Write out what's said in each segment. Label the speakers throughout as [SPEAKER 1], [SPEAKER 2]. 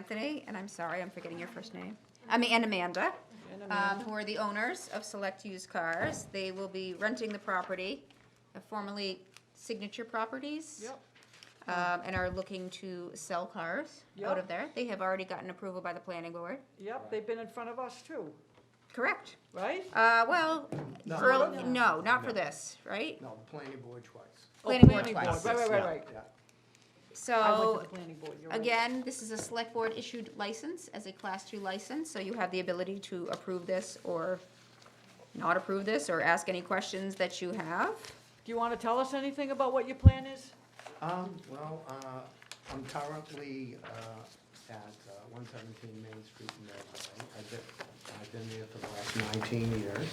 [SPEAKER 1] Anthony, and I'm sorry, I'm forgetting your first name. I mean, and Amanda, um, who are the owners of Select Used Cars. They will be renting the property, uh, formerly Signature Properties.
[SPEAKER 2] Yep.
[SPEAKER 1] Um, and are looking to sell cars out of
[SPEAKER 2] Yep.
[SPEAKER 1] there. They have already gotten approval by the planning board.
[SPEAKER 2] Yep, they've been in front of us too,
[SPEAKER 1] Correct.
[SPEAKER 2] right?
[SPEAKER 1] Uh, well,
[SPEAKER 3] No.
[SPEAKER 1] early, no, not for this, right?
[SPEAKER 3] No, the planning board twice.
[SPEAKER 2] Oh,
[SPEAKER 1] Planning board twice.
[SPEAKER 2] Right, right, right, right.
[SPEAKER 3] Yeah,
[SPEAKER 2] I went
[SPEAKER 1] So,
[SPEAKER 2] to the planning board, you're right.
[SPEAKER 1] Oh, Again, this is a select board issued license as a class two license, so you have the ability to approve this or not approve this or ask any questions that you have.
[SPEAKER 2] Do you want to tell us anything about what your plan is?
[SPEAKER 3] um, well, uh, I'm currently, uh, at one seventeen Main Street in Millville. I've been, I've been there for the last nineteen years.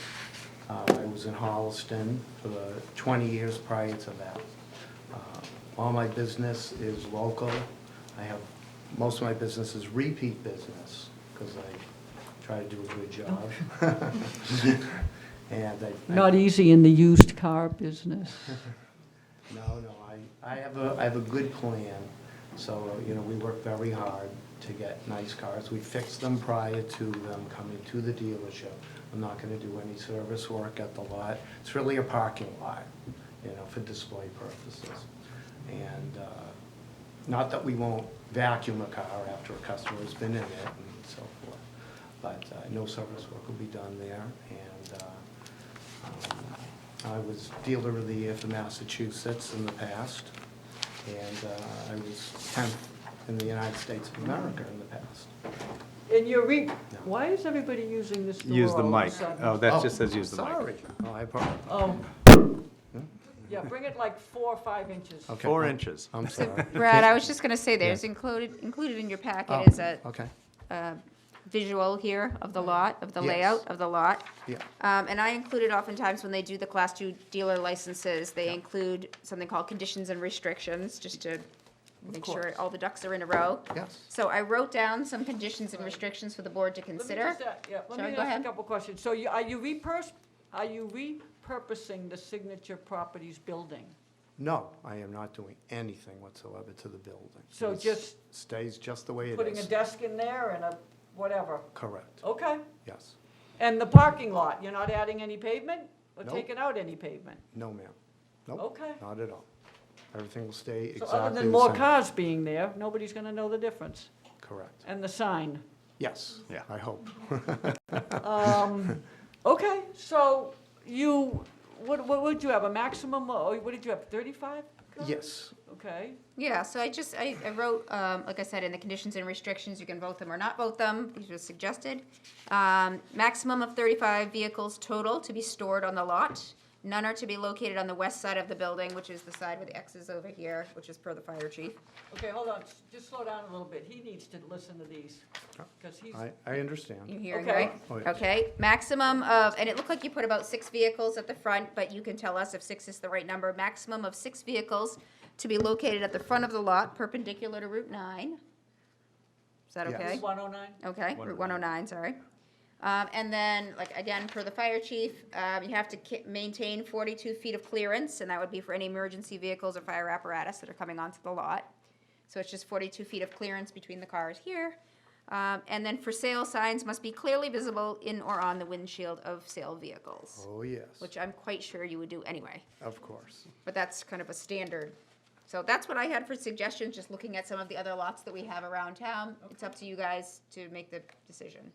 [SPEAKER 3] Uh, I was in Holliston for the twenty years prior to that. Uh, All my business is local. I have, most of my business is repeat business, because I try to do a good job. And I. I-
[SPEAKER 4] Not easy in the used car business.
[SPEAKER 3] No, no, I, I have a, I have a good plan, so, you know, we work very hard to get nice cars. We fix them prior to them coming to the dealership. I'm not gonna do any service work at the lot. It's really a parking lot, you know, for display purposes. And, uh, not that we won't vacuum a car after a customer's been in it and so forth, but, uh, no service work will be done there, and, uh, I was dealer of the year for Massachusetts in the past, and uh, I was 10th in the United States of America in the past.
[SPEAKER 2] And you're re, why is everybody using this door
[SPEAKER 5] Use the
[SPEAKER 2] all of a
[SPEAKER 5] mic.
[SPEAKER 2] sudden?
[SPEAKER 5] Oh, that just says use the mic.
[SPEAKER 3] Sorry. Oh, I apologize.
[SPEAKER 2] Oh. Yeah, bring it like four or five inches.
[SPEAKER 3] Okay.
[SPEAKER 5] Four inches.
[SPEAKER 3] I'm sorry.
[SPEAKER 1] Brad, I was just gonna say, there's
[SPEAKER 3] Yeah.
[SPEAKER 1] included, included in your packet
[SPEAKER 3] Oh,
[SPEAKER 1] is a,
[SPEAKER 3] Okay,
[SPEAKER 1] a visual here of the lot, of the
[SPEAKER 3] Yes.
[SPEAKER 1] layout of the lot.
[SPEAKER 3] yeah.
[SPEAKER 1] Um, and I included oftentimes when they do the class two dealer licenses, they include something called conditions and restrictions, just to make sure
[SPEAKER 3] course.
[SPEAKER 1] all the ducks are in a row.
[SPEAKER 3] Yes.
[SPEAKER 1] So I wrote down some conditions and restrictions for the board to
[SPEAKER 2] Let me
[SPEAKER 1] consider.
[SPEAKER 2] just, uh, Yeah, let
[SPEAKER 1] Sorry,
[SPEAKER 2] me
[SPEAKER 1] go
[SPEAKER 2] ask
[SPEAKER 1] ahead.
[SPEAKER 2] a couple questions. So you, are you repurs, are you repurposing the Signature Properties building?
[SPEAKER 3] No, I am not doing anything whatsoever to the building.
[SPEAKER 2] So
[SPEAKER 3] It
[SPEAKER 2] just
[SPEAKER 3] Stays just the way it
[SPEAKER 2] Putting a Oh.
[SPEAKER 3] is.
[SPEAKER 2] desk in there and a whatever,
[SPEAKER 3] Correct,
[SPEAKER 2] okay.
[SPEAKER 3] yes.
[SPEAKER 2] And the parking lot, you're not adding any pavement or
[SPEAKER 3] Nope.
[SPEAKER 2] taking out any pavement?
[SPEAKER 3] No, ma'am. Nope,
[SPEAKER 2] Okay.
[SPEAKER 3] not at all. Everything will stay
[SPEAKER 2] So
[SPEAKER 3] exactly the same.
[SPEAKER 2] other than more cars being there, nobody's gonna know the difference.
[SPEAKER 3] Correct,
[SPEAKER 2] And the sign.
[SPEAKER 3] yes.
[SPEAKER 5] Yeah.
[SPEAKER 3] I hope.
[SPEAKER 2] Um, Okay, so you, what, what would you have, a maximum, oh, what did you have, thirty-five?
[SPEAKER 3] Yes,
[SPEAKER 2] Okay,
[SPEAKER 1] Yeah, so I just, I, I wrote, um, like I said, in the conditions and restrictions, you can vote them or not vote them, these are suggested. Um, maximum of thirty-five vehicles total to be stored on the lot. None are to be located on the west side of the building, which is the side with the X's over here, which is per the fire chief.
[SPEAKER 2] okay, hold on, s- just slow down a little bit, he needs to listen to these, because he's,
[SPEAKER 3] Oh, I, I understand.
[SPEAKER 1] You hearing,
[SPEAKER 2] Okay.
[SPEAKER 1] right?
[SPEAKER 3] Oh, yes.
[SPEAKER 1] Okay, maximum of, and it looked like you put about six vehicles at the front, but you can tell us if six is the right number. Maximum of six vehicles to be located at the front of the lot perpendicular to Route nine. Is that
[SPEAKER 3] Yes.
[SPEAKER 1] okay?
[SPEAKER 2] one oh nine?
[SPEAKER 1] Okay, Route 109, sorry. Um, And then, like, again, for the fire chief, um, you have to ki- maintain 42 feet of clearance, and that would be for any emergency vehicles or fire apparatus that are coming onto the lot. So it's just 42 feet of clearance between the cars here. Um, And then for sale signs must be clearly visible in or on the windshield of sale vehicles,
[SPEAKER 3] Oh, yes,
[SPEAKER 1] which I'm quite sure you would do anyway,
[SPEAKER 3] of course.
[SPEAKER 1] but that's kind of a standard. So that's what I had for suggestions, just looking at some of the other lots that we have around town. It's up to you guys to make the decision.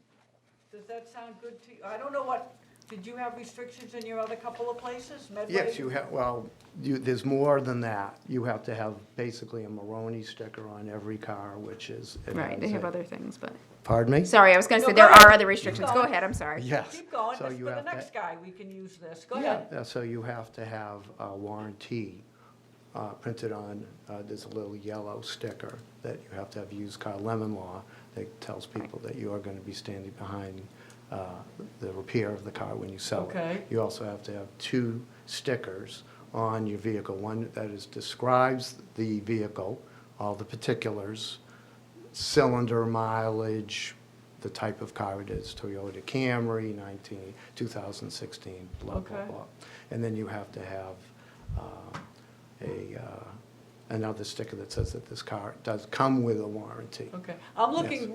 [SPEAKER 2] Does that sound good to you? I don't know what, did you have restrictions in your other couple of places, Medway?
[SPEAKER 3] Yes, you have, well, you, there's more than that. You have to have basically a Maroni sticker on every car, which is. it
[SPEAKER 1] Right, they
[SPEAKER 3] has
[SPEAKER 1] have
[SPEAKER 3] a-
[SPEAKER 1] other things, but.
[SPEAKER 3] Pardon me?
[SPEAKER 1] Sorry, I was gonna
[SPEAKER 2] No,
[SPEAKER 1] say,
[SPEAKER 2] go
[SPEAKER 1] there
[SPEAKER 2] ahead.
[SPEAKER 1] are other restrictions, go
[SPEAKER 2] going.
[SPEAKER 1] ahead, I'm sorry.
[SPEAKER 3] Yes.
[SPEAKER 2] Keep going,
[SPEAKER 3] So
[SPEAKER 2] this-
[SPEAKER 3] you
[SPEAKER 2] for the
[SPEAKER 3] have to-
[SPEAKER 2] next guy, we can use this, go
[SPEAKER 3] Yeah,
[SPEAKER 2] ahead.
[SPEAKER 3] yeah, so you have to have a warranty uh, printed on, uh, there's a little yellow sticker that you have to have used car lemon law that tells people that you are going to be standing behind uh, the repair of the car when you sell it.
[SPEAKER 2] Okay.
[SPEAKER 3] You also have to have two stickers on your vehicle, one that is, describes the vehicle, all the particulars, cylinder mileage, the type of car it is, Toyota Camry, 19, 2016, blah, blah,
[SPEAKER 2] Okay.
[SPEAKER 3] blah. And then you have to have uh, a uh, another sticker that says that this car does come with a warranty.
[SPEAKER 2] Okay, I'm
[SPEAKER 3] Yes.
[SPEAKER 2] looking